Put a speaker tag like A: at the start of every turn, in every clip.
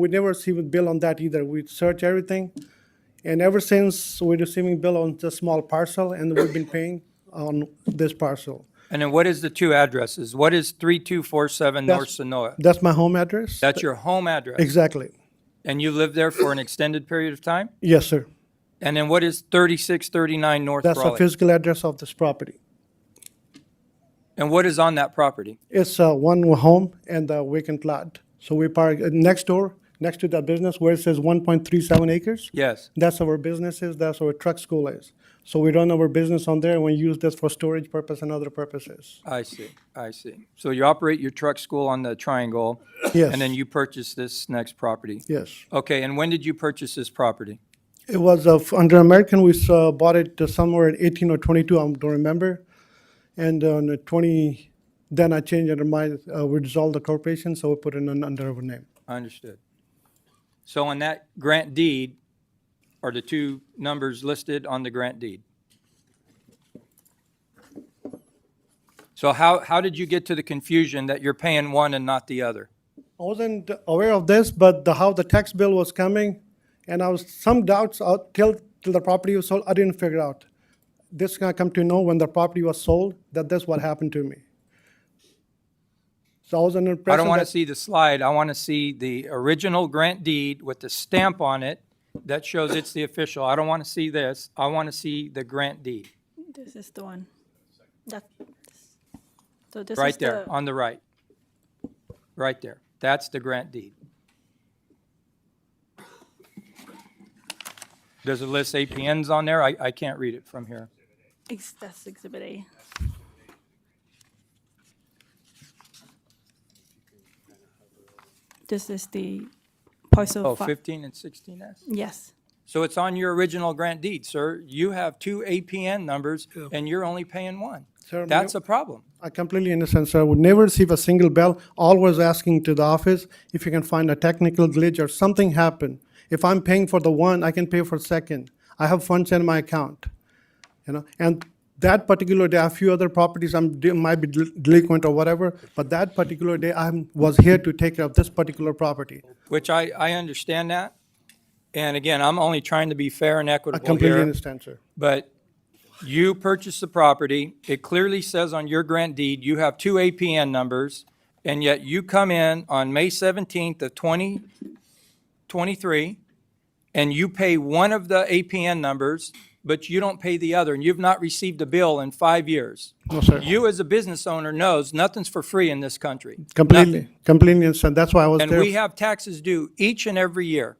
A: We never received bill on that either. We search everything. And ever since, we're receiving bill on the small parcel and we've been paying on this parcel.
B: And then what is the two addresses? What is 3247 North
A: That's-
B: Sonoa?
A: That's my home address?
B: That's your home address?
A: Exactly.
B: And you lived there for an extended period of time?
A: Yes, sir.
B: And then what is 3639 North
A: That's the
B: Raleigh?
A: physical address of this property.
B: And what is on that property?
A: It's uh, one home and a vacant lot. So we park uh, next door, next to that business where it says 1.37 acres.
B: Yes.
A: That's our businesses, that's our truck school is. So we run our business on there and we use this for storage purpose and other purposes.
B: I see, I see. So you operate your truck school on the triangle?
A: Yes.
B: And then you purchase this next property?
A: Yes.
B: Okay, and when did you purchase this property?
A: It was uh, f- under American, we uh, bought it uh, somewhere at 18 or 22, I don't remember. And on the 20, then I changed under my, uh, we dissolved the corporation, so we put it in under our name.
B: Understood. So on that grant deed, are the two numbers listed on the grant deed? So how, how did you get to the confusion that you're paying one and not the other?
A: I wasn't aware of this, but the, how the tax bill was coming, and I was some doubts out till, till the property was sold, I didn't figure out. This gonna come to know when the property was sold, that that's what happened to me. So I was under
B: I
A: impression
B: don't want to
A: that-
B: see the slide, I want to see the original grant deed with the stamp on it that shows it's the official. I don't want to see this, I want to see the grant deed,
C: This is the one. That, so this is
B: right there,
C: the,
B: on the right. Right there, that's the grant deed. Does it list APNs on there? I, I can't read it from here.
C: ex- that's Exhibit A. This is the
B: Oh,
C: parcel fi-
B: 15 and 16S?
C: yes,
B: So it's on your original grant deed, sir. You have two APN numbers, and you're only paying one.
A: Sir, may-
B: That's a problem.
A: I completely understand, sir. I would never receive a single bell. Always asking to the office if you can find a technical glitch or something happened. If I'm paying for the one, I can pay for second. I have funds in my account, you know. And that particular day, a few other properties I'm de- might be del- delinquent or whatever, but that particular day, I am was here to take care of this particular property.
B: which I, I understand that. And again, I'm only trying to be fair and
A: I
B: equitable
A: completely
B: here.
A: understand, sir.
B: But you purchased the property. It clearly says on your grant deed, you have two APN numbers. And yet you come in on May 17th of 2023 and you pay one of the APN numbers, but you don't pay the other. And you've not received a bill in five years.
A: No, sir.
B: You, as a business owner, knows nothing's for free in this country.
A: Completely, completely understand. That's why I was there.
B: And we have taxes due each and every year.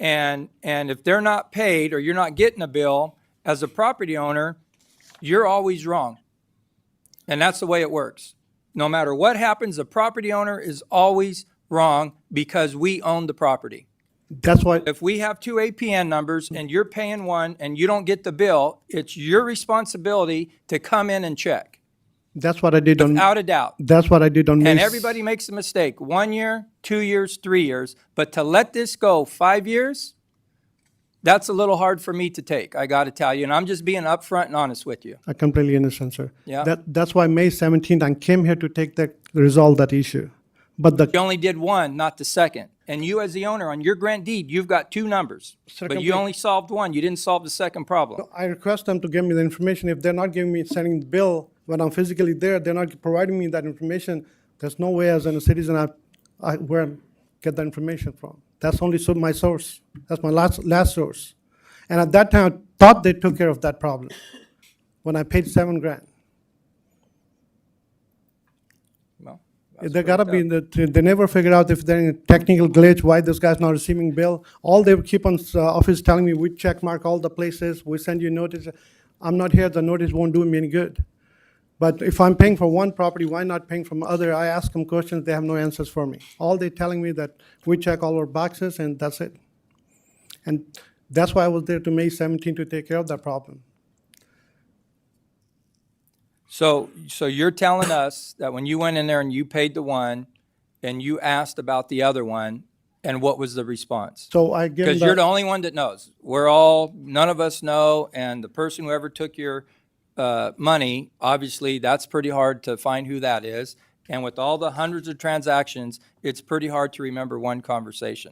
B: And, and if they're not paid or you're not getting a bill, as a property owner, you're always wrong. And that's the way it works. No matter what happens, a property owner is always wrong because we own the property.
A: That's why,
B: If we have two APN numbers and you're paying one and you don't get the bill, it's your responsibility to come in and check,
A: that's what I did on,
B: without a doubt.
A: that's what I did on May.
B: And
A: s-
B: everybody makes a mistake, one year, two years, three years, but to let this go five years, that's a little hard for me to take, I gotta tell you, and I'm just being upfront and honest with you.
A: I completely understand, sir.
B: Yeah.
A: That, that's why May 17th, I came here to take that, resolve that issue. But
B: You
A: the,
B: only did one, not the second, and you as the owner, on your grant deed, you've got two numbers,
A: Sir,
B: but you
A: complete-
B: only solved one, you didn't solve the second problem.
A: I request them to give me the information. If they're not giving me, sending the bill when I'm physically there, they're not providing me that information, there's no way as a citizen I, I, where I get that information from. That's only so my source. That's my last, last source. And at that time, I thought they took care of that problem when I paid seven grand.
B: Well, that's
A: They gotta
B: fucked
A: be,
B: up.
A: in the they never figured out if there's any technical glitch, why this guy's not receiving bill. All they keep on, uh, office telling me, we check mark all the places, we send you notice. I'm not here, the notice won't do me any good. But if I'm paying for one property, why not paying from other? I ask them questions, they have no answers for me. All they telling me that we check all our boxes and that's it. And that's why I was there to May 17 to take care of that problem.
B: So, so you're telling us that when you went in there and you paid the one, and you asked about the other one, and what was the response?
A: So I give them
B: Because you're the
A: the,
B: only one that knows. We're all, none of us know, and the person who ever took your uh, money, obviously, that's pretty hard to find who that is. And with all the hundreds of transactions, it's pretty hard to remember one conversation.